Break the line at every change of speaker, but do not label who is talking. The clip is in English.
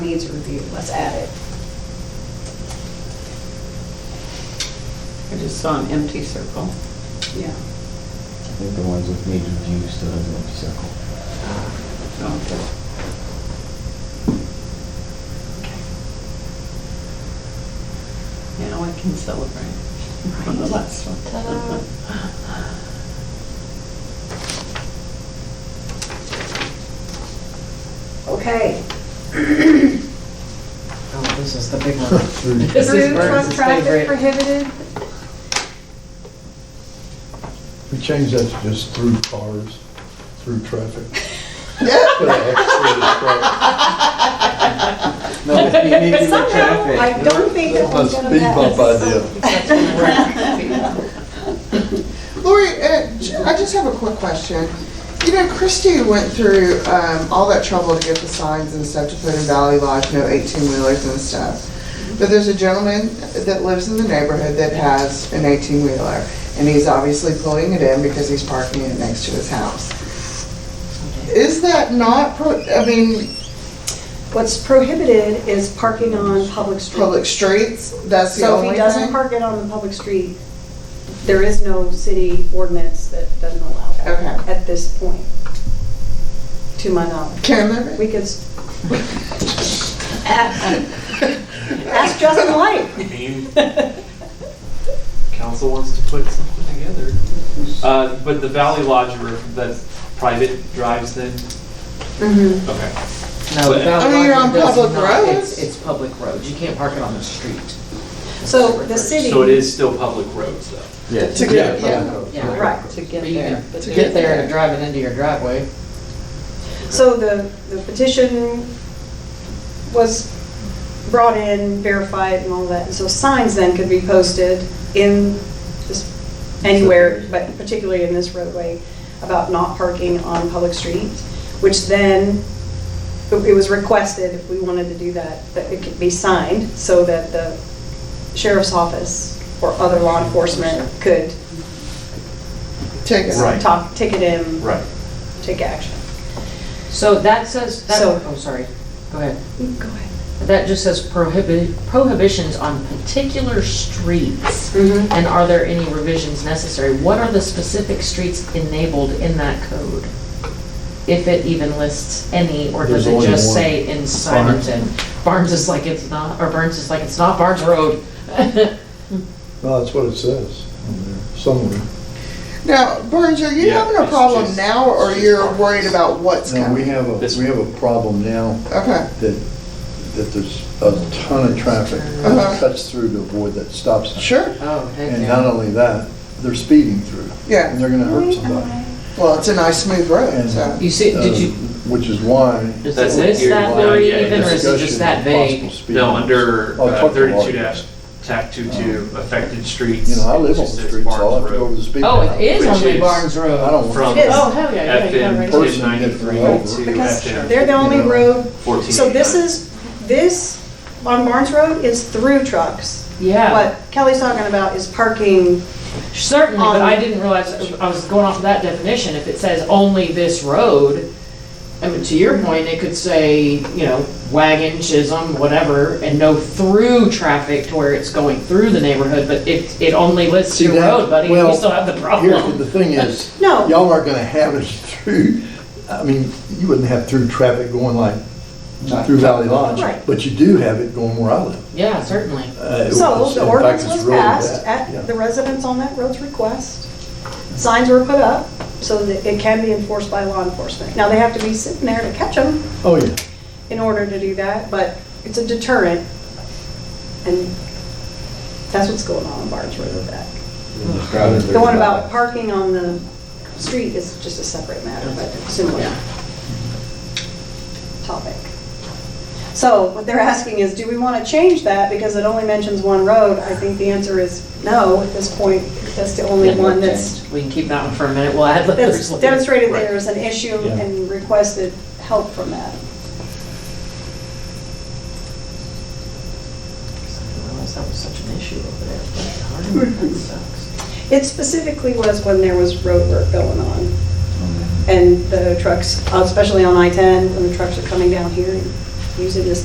needs a review, let's add it.
I just saw an empty circle.
Yeah.
I think the ones with major view still has an empty circle.
Oh, good. Now I can celebrate on the
Right.
last one.
Okay.
Oh, this is the big one. This is
Through truck
Burns's
traffic
favorite.
prohibited,
We changed that to just through cars, through traffic. Put an X through the traffic.
No, it's unique to the
somehow,
traffic.
I don't think that
A
one's gonna
speed
pass.
bump idea.
Lori, uh, j- I just have a quick question. You know, Christie went through um, all that trouble to get the signs and stuff to put in Valley Lodge, no 18-wheelers and stuff. But there's a gentleman that lives in the neighborhood that has an 18-wheeler, and he's obviously pulling it in because he's parking it next to his house. Is that not, pro- I mean,
What's prohibited is parking on public streets.
public streets? That's the
So if
only
he
thing?
doesn't park it on the public street, there is no city ordinance that doesn't allow that
Okay.
at this point, to my knowledge.
Can there
We
be?
could. s- Ask Justin Light.
I mean, council wants to put something together. Uh, but the Valley Lodge, or that's private drives then?
Mm-hmm.
Okay.
No, the Valley
I mean, you're
Lodge
on
does
public
not-
roads.
It's, it's Oh, public roads. You can't park it on the street.
So the city.
So it is still public roads though?
Yeah.
To get, yeah.
Oh,
Yeah.
Right.
To get
But you
there.
can
but
To
get
there's-
there and drive it into your driveway.
So the, the petition was brought in, verified and all that, and so signs then could be posted in, this- anywhere, but particularly in this roadway, about not parking on public streets, which then, it it was requested, if we wanted to do that, that it could be signed, so that the sheriff's office or other law enforcement could
Take it.
Right.
talk, ticket him,
Right.
take action.
So that says, that,
So-
oh, sorry, go ahead.
Go ahead.
That just says prohibi- prohibitions on particular streets.
Mhm.
And are there any revisions necessary? What are the specific streets enabled in that code? If it even lists any, or does
There's
it
only
just
one.
say in Simonton? Barnes is like it's not, or Burns is like it's not Barnes Road.
No, that's what it says on there, somewhere.
Now, Burns, are you
Yeah,
having a
it's
problem
just-
now, or
it's just
you're
parking.
worried about what's
No, we
coming?
have a,
This-
we have a problem now
Okay,
that, that there's a ton of traffic
Uh-huh.
that cuts through to avoid that stop sign.
sure,
Oh, heck
And
yeah.
not only that, they're speeding through.
Yeah.
And they're gonna hurt somebody.
well, it's a nice smooth road,
And-
so.
You see, did you,
Uh, Which is why.
does
That's
it
it
list
here.
that,
Well,
Lori,
yeah,
even, or is it
discussion
just
of
that
possible
vague?
speed
No,
limits.
under uh,
I'll talk to
thirty-two
Mark.
dash, tac two-two, affected streets.
Uh, You know, I live on
It's
the
just
street, so I'll
Barnes
have to go over
Road.
the speed.
Oh,
limit.
it is
Which
only
is-
Barnes Road.
I don't
From
want.
Yes.
Oh, hell yeah, yeah, yeah,
FM
right.
Person
ten ninety-three
different.
to
Because
FM.
they're the only road,
14.
so this is, this on Barnes Road is through trucks.
Yeah,
What Kelly's talking about is parking,
certainly, but I
Um,
didn't realize, I was going off of that definition, if it says only this road, I mean, to your point, it could say, you know, wagon, chisholm, whatever, and no through traffic to where it's going through the neighborhood, but it, it only lists
See,
your
that-
road, buddy,
well,
you still have the
Here's the-
problem.
the thing is,
No.
y'all aren't gonna have it through, I mean, you wouldn't have through traffic going like through Valley Lodge,
Right.
but you do have it going where I live.
Yeah, certainly.
Uh, it
so
was-
the
in fact,
ordinance
it's
was
really
passed
bad. Yeah.
at the residents on that road's request. Signs were put up so that it can be enforced by law enforcement. Now, they have to be sitting there to catch them
Oh, yeah.
in order to do that, but it's a deterrent. And that's what's going on on Barnes Road with that. The one about parking on the street is just a separate matter, but similar topic. So what they're asking is, do we want to change that because it only mentions one road? I think the answer is no at this point. That's the only one that's,
We can keep that one for a minute, we'll add the
that's
others later.
demonstrated there is an issue
Yeah.
and requested help from that.
I didn't realize that was such an issue over there, but that sucks.
It specifically was when there was road work going on uh, and the trucks, especially on I-10, when the trucks are coming down here and using this